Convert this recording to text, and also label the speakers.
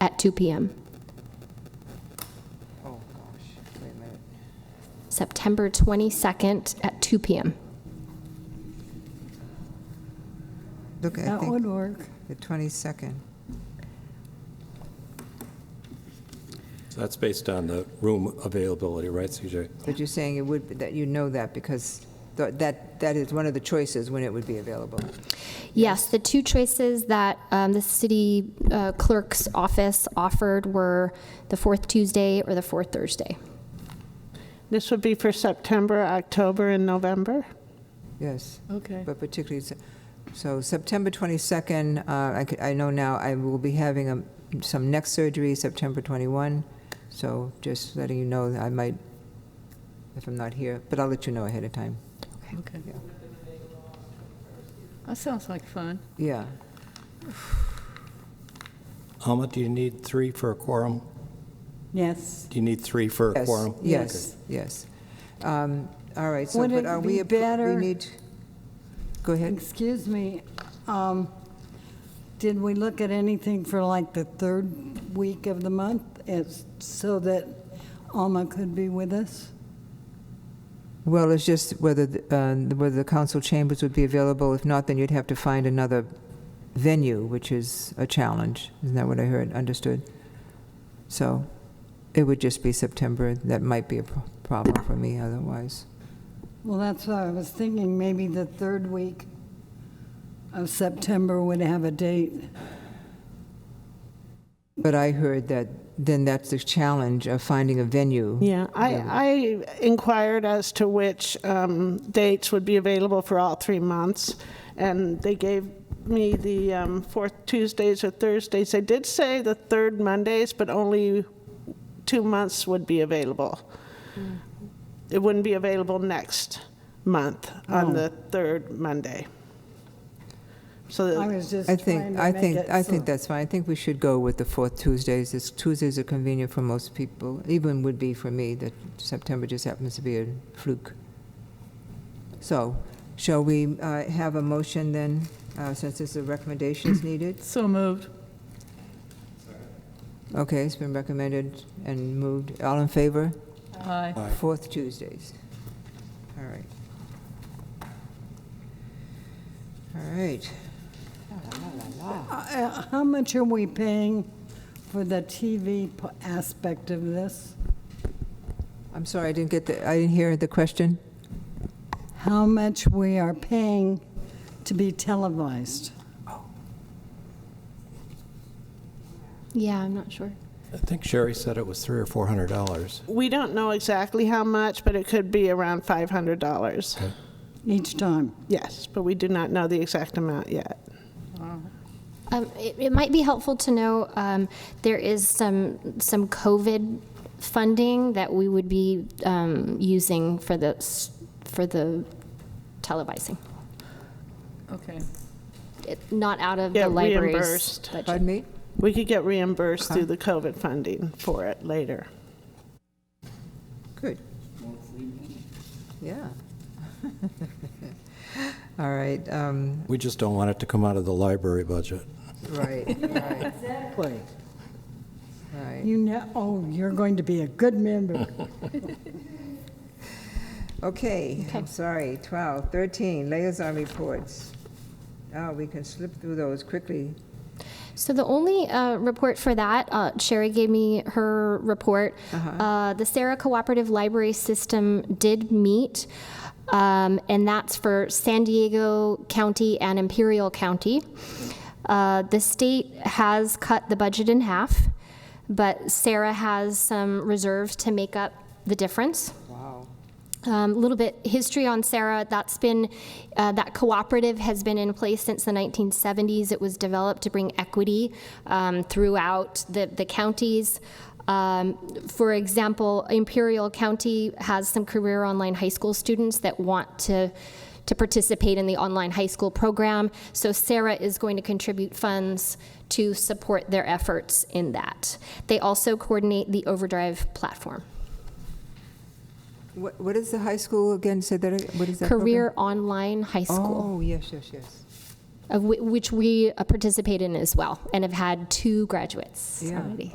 Speaker 1: 2 PM.
Speaker 2: Oh, gosh, wait a minute.
Speaker 1: September 22nd at 2 PM.
Speaker 2: Look, I
Speaker 3: That would
Speaker 2: think
Speaker 3: work.
Speaker 2: the 22nd.
Speaker 4: So that's based on the room availability, right, CJ?
Speaker 2: But you're saying it would, that you know that because th- that, that is one of the choices when it would be available.
Speaker 1: Yes, the two choices that um, the city uh, clerk's office offered were the fourth Tuesday or the fourth Thursday.
Speaker 5: This would be for September, October, and November?
Speaker 2: Yes.
Speaker 5: Okay.
Speaker 2: But particularly, s- so September 22nd, uh, I could- I know now I will be having um, some neck surgery September 21, so just letting you know that I might, if I'm not here, but I'll let you know ahead of time.
Speaker 3: Okay.
Speaker 2: Yeah.
Speaker 3: That sounds like fun.
Speaker 2: Yeah,
Speaker 4: Alma, do you need three for a quorum?
Speaker 6: Yes.
Speaker 4: Do you need three for a
Speaker 2: yes,
Speaker 4: quorum?
Speaker 2: yes, yes. Um, All right, so,
Speaker 6: Would
Speaker 2: but
Speaker 6: it
Speaker 2: are
Speaker 6: be
Speaker 2: we, appro-
Speaker 6: better-
Speaker 2: we need, go ahead.
Speaker 6: Excuse me, um, did we look at anything for like the third week of the month as, so that Alma could be with us?
Speaker 2: Well, it's just whether, the- uh, whether the council chambers would be available. If not, then you'd have to find another venue, which is a challenge. Isn't that what I heard, understood? So it would just be September. That might be a pro- problem for me otherwise.
Speaker 6: Well, that's what I was thinking, maybe the third week of September would have a date.
Speaker 2: But I heard that then that's the challenge of finding a venue.
Speaker 5: Yeah, I, I inquired as to which um, dates would be available for all three months, and they gave me the um, fourth Tuesdays or Thursdays. They did say the third Mondays, but only two months would be available. Hmm. It wouldn't be available next month on the third Monday. So
Speaker 6: I
Speaker 5: the-
Speaker 6: was just
Speaker 2: Uh, I
Speaker 6: trying to
Speaker 2: think,
Speaker 6: make
Speaker 2: I think,
Speaker 6: it
Speaker 2: I
Speaker 6: so-
Speaker 2: think that's fine. I think we should go with the fourth Tuesdays. It's- Tuesdays are convenient for most people, even would be for me, that September just happens to be a fluke. So, shall we uh, have a motion then, uh, since this is recommendations needed?
Speaker 3: So moved.
Speaker 2: Okay, it's been recommended and moved. All in favor?
Speaker 3: Aye.
Speaker 4: Aye.
Speaker 2: Fourth Tuesdays. All right. All right.
Speaker 6: Uh, How much are we paying for the TV p- aspect of this?
Speaker 2: I'm sorry, I didn't get the, I didn't hear the question.
Speaker 6: How much we are paying to be televised?
Speaker 1: Yeah, I'm not sure.
Speaker 4: I think Sherry said it was three or four hundred dollars.
Speaker 5: we don't know exactly how much, but it could be around $500.
Speaker 6: Each time.
Speaker 5: Yes, but we do not know the exact amount yet.
Speaker 1: Um, It it might be helpful to know, um, there is some, some COVID funding that we would be um, using for the, s- for the televising.
Speaker 3: Okay.
Speaker 1: It- Not out of
Speaker 5: Yeah,
Speaker 1: the library's
Speaker 5: reimbursed.
Speaker 1: budget.
Speaker 2: Pardon me?
Speaker 5: We could get reimbursed through the COVID funding for it later.
Speaker 2: Good. Yeah. All right, um,
Speaker 4: We just don't want it to come out of the library budget.
Speaker 2: right, right,
Speaker 6: Exactly.
Speaker 2: right.
Speaker 6: You know, oh, you're going to be a good member.
Speaker 2: Okay, I'm sorry, 12, 13, liaison reports. Oh, we can slip through those quickly.
Speaker 1: So the only uh, report for that, uh, Sherry gave me her report. Uh, the Sarah Cooperative Library System did meet, um, and that's for San Diego County and Imperial County. Uh, the state has cut the budget in half, but Sarah has some reserves to make up the difference.
Speaker 2: Wow.
Speaker 1: um, A little bit history on Sarah. That's been, uh, that cooperative has been in place since the 1970s. It was developed to bring equity um, throughout the, the counties. Um, for example, Imperial County has some career online high school students that want to to participate in the online high school program. So Sarah is going to contribute funds to support their efforts in that. They also coordinate the Overdrive platform.
Speaker 2: What, what is the high school again, say that, ag- what is that? program?
Speaker 1: Career Online High School.
Speaker 2: Oh, yes, yes, yes.
Speaker 1: of whi- which we uh, participate in as well and have had two graduates
Speaker 2: Yeah.
Speaker 1: already.